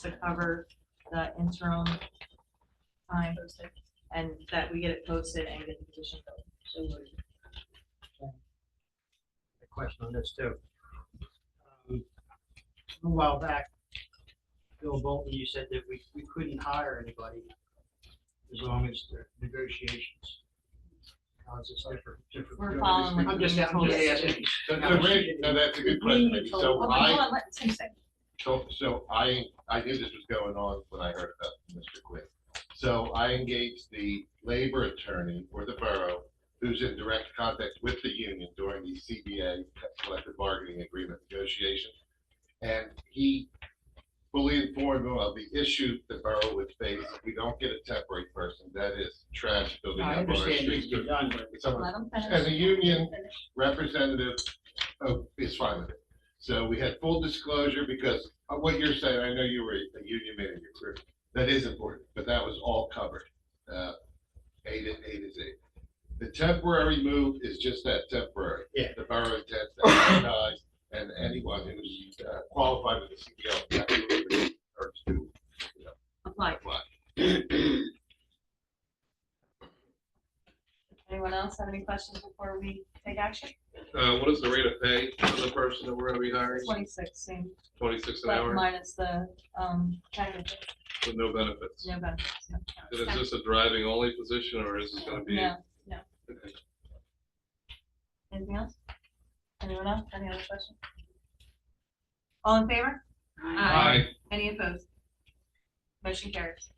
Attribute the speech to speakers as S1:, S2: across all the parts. S1: to cover the interim time and that we get it posted and get the petition filled.
S2: a question on this too. Um, A while back, Bill Bolton, you said that we, we couldn't hire anybody as long as the negotiations. How is this different? different?
S1: We're following what
S2: I'm just, I'm just asking.
S3: So, so wait, no, that's a good question, maybe. so
S1: Okay, hold
S3: I,
S1: on, let- Tim, say.
S3: so, so I, I knew this was going on when I heard about Mr. Quinn. So I engaged the labor attorney for the borough, who's in direct contact with the union during the CBA collective bargaining agreement negotiation. And he fully informed me of the issues the borough would face if we don't get a temporary person, that is trash building
S2: I
S3: up on our
S2: understand
S3: streets.
S2: you're done, but
S3: It's on-
S1: Let them finish.
S3: As a union
S1: Finish.
S3: representative oh, is fine with it. So we had full disclosure because of what you're saying, I know you were a union man in your career. That is important, but that was all covered. Uh, A to, A to Z. The temporary move is just that temporary.
S2: Yeah.
S3: The borough intends to advertise and anyone who's uh, qualified with the E CBO absolutely or to
S1: Apply.
S3: apply.
S1: Anyone else have any questions before we take action?
S4: Uh, what is the rate of pay for the person that we're gonna be hiring?
S1: Twenty-six, same,
S4: Twenty-six an
S1: but
S4: hour
S1: minus the, um, benefits,
S4: with no benefits.
S1: no benefits. no.
S4: And is this a driving only position or is this gonna be?
S1: No, no. Anything else? Anyone else? Any other questions? All in favor?
S4: Aye.
S1: Any opposed? Motion carries.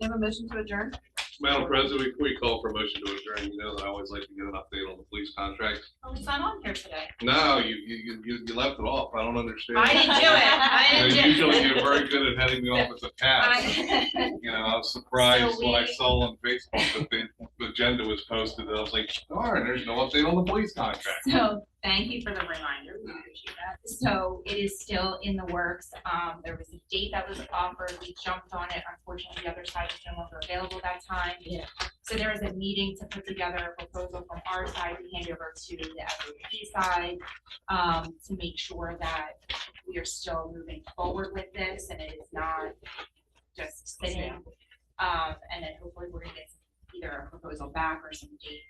S1: Do you have a motion to adjourn?
S4: Madam President, before you call for a motion to adjourn, you know that I always like to get an update on the police contract.
S5: Oh, it's not on here today.
S4: No, you, you, you- you, you left it off. I don't understand.
S5: I didn't do it. I
S4: You know,
S5: didn't do
S4: Usually
S5: it.
S4: you're very good at heading me off with a pass.
S5: I-
S4: You know, I was surprised
S5: So
S4: when I
S5: we-
S4: saw on Facebook that the, the agenda was posted. and I was like, darn, there's no update on the police contract.
S5: So, thank you for the reminder, we appreciate that. So it is still in the works, um, there was a date that was offered, we jumped on it, unfortunately, the other side was no longer available that time.
S1: Yeah.
S5: So there was a meeting to put together a proposal from our side to hand over to the FAP side, um, to make sure that we are still moving forward with this and it is not just sitting. Um, and then hopefully we're gonna get either a proposal back or some dates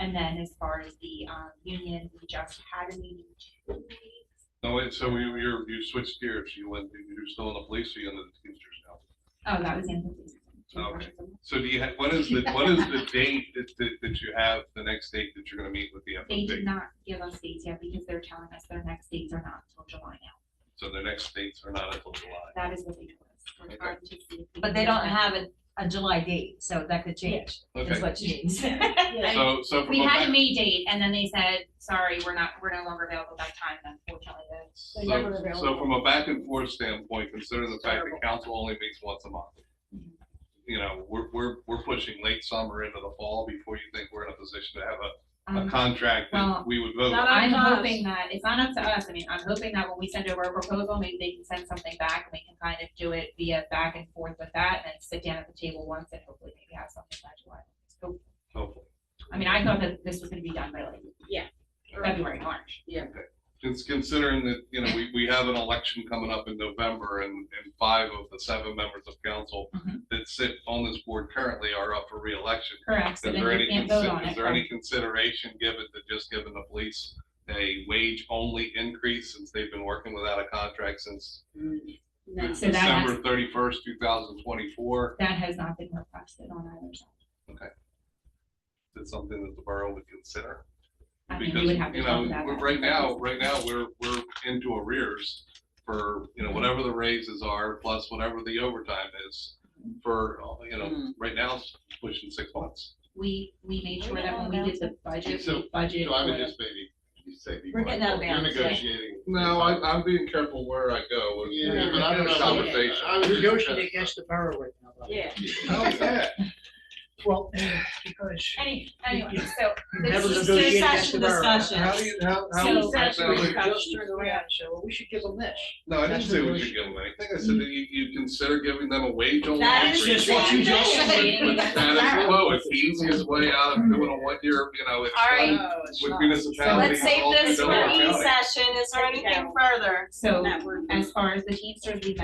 S5: and then as far as the um, union, we just had a meeting. two weeks-
S4: No, wait, so you, you're, you switched gears. You went, you're still in the police, or you're in the teamsters now?
S5: Oh, that was in. the police
S4: Okay.
S5: station.
S4: So do you, ha- what is the, what is the date that, that, that you have, the next date that you're gonna meet with the
S5: They did
S4: FOP?
S5: not give us dates yet because they're telling us their next dates are not until July now.
S4: So the next dates are not until July.
S5: That is what they told us. We're trying to see if we
S6: But
S5: can
S6: they
S5: get
S6: don't
S5: them.
S6: have a, a July date, so that could change, is
S4: Okay,
S6: what she means.
S4: so, so from
S5: We
S4: a,
S5: had a
S4: ma-
S5: May date and then they said, sorry, we're not, we're no longer available that time, and unfortunately. that's-
S4: so, so from a back and forth standpoint, considering the fact that council only meets once a month. You know, we're, we're, we're pushing late summer into the fall before you think we're in a position to have a, a
S5: Um,
S4: contract that
S5: well,
S4: we would vote.
S1: not
S4: on.
S5: I'm
S1: Not up to us.
S5: hoping that, it's not up to us, I mean, I'm hoping that when we send over a proposal, maybe they can send something back, and we can kind of do it via back and forth with that, and then sit down at the table once and hopefully maybe have something by July. So,
S4: Hopefully.
S5: I mean, I thought that this was gonna be done by like.
S1: Yeah.
S5: February, March.
S4: Cons- Considering that, you know, we, we have an election coming up in November and, and five of the seven members of council
S5: Mhm.
S4: that sit on this board currently are up for reelection.
S5: Correct,
S4: Is
S5: so then
S4: there
S5: you
S4: any,
S5: can't vote on
S4: consi-
S5: it.
S4: is there any consideration given to just giving the police a wage only increase since they've been working without a contract since
S5: No. Mm, So that has,
S4: December thirty-first, two thousand twenty-four?
S5: that has not been requested on either side.
S4: Is it something that the borough would consider?
S5: I mean, we
S4: Because,
S5: would have to
S4: you know,
S5: talk about
S4: we're-
S5: that.
S4: right now, right now, we're, we're into arrears for, you know, whatever the raises are, plus whatever the overtime is for, you
S5: Mm.
S4: know, right now, it's pushing six months.
S5: We, we made sure that when we did the budget,
S3: So-
S5: we budgeted.
S3: So I would
S5: for-
S3: just maybe, you say. be
S6: We're getting out of
S3: mindful. You're
S6: bounds, yeah.
S3: Negotiating.
S4: I'm being careful where I go.
S3: Yeah, but I don't know.
S4: Conversation.
S3: I was just-
S2: Negotiating against the borough right now. though.
S1: Yeah.
S4: How is that?
S2: Well, because
S5: Any, anyway, so
S2: you
S5: This
S2: never
S5: is
S2: negotiate against the
S1: discussion,
S2: borough.
S1: discussion.
S2: How
S4: How
S2: do
S4: do
S2: you-
S4: you, how, how?
S5: So-
S4: that sounds like-
S2: I just turned around and said, well, we should give them this.
S4: No, I didn't say we should give them anything. I said that you, you consider giving them a wage only.
S1: That is
S4: increase.
S2: just what you just
S5: said.
S4: With status quo, it's the easiest way out of doing a one-year, you know, it's.
S1: All right.
S2: No, it's
S4: With
S2: not.
S4: municipality.
S1: Let's save this for E session. Is there anything further?
S5: So
S1: that we're-
S5: as far as the Teamsters, we've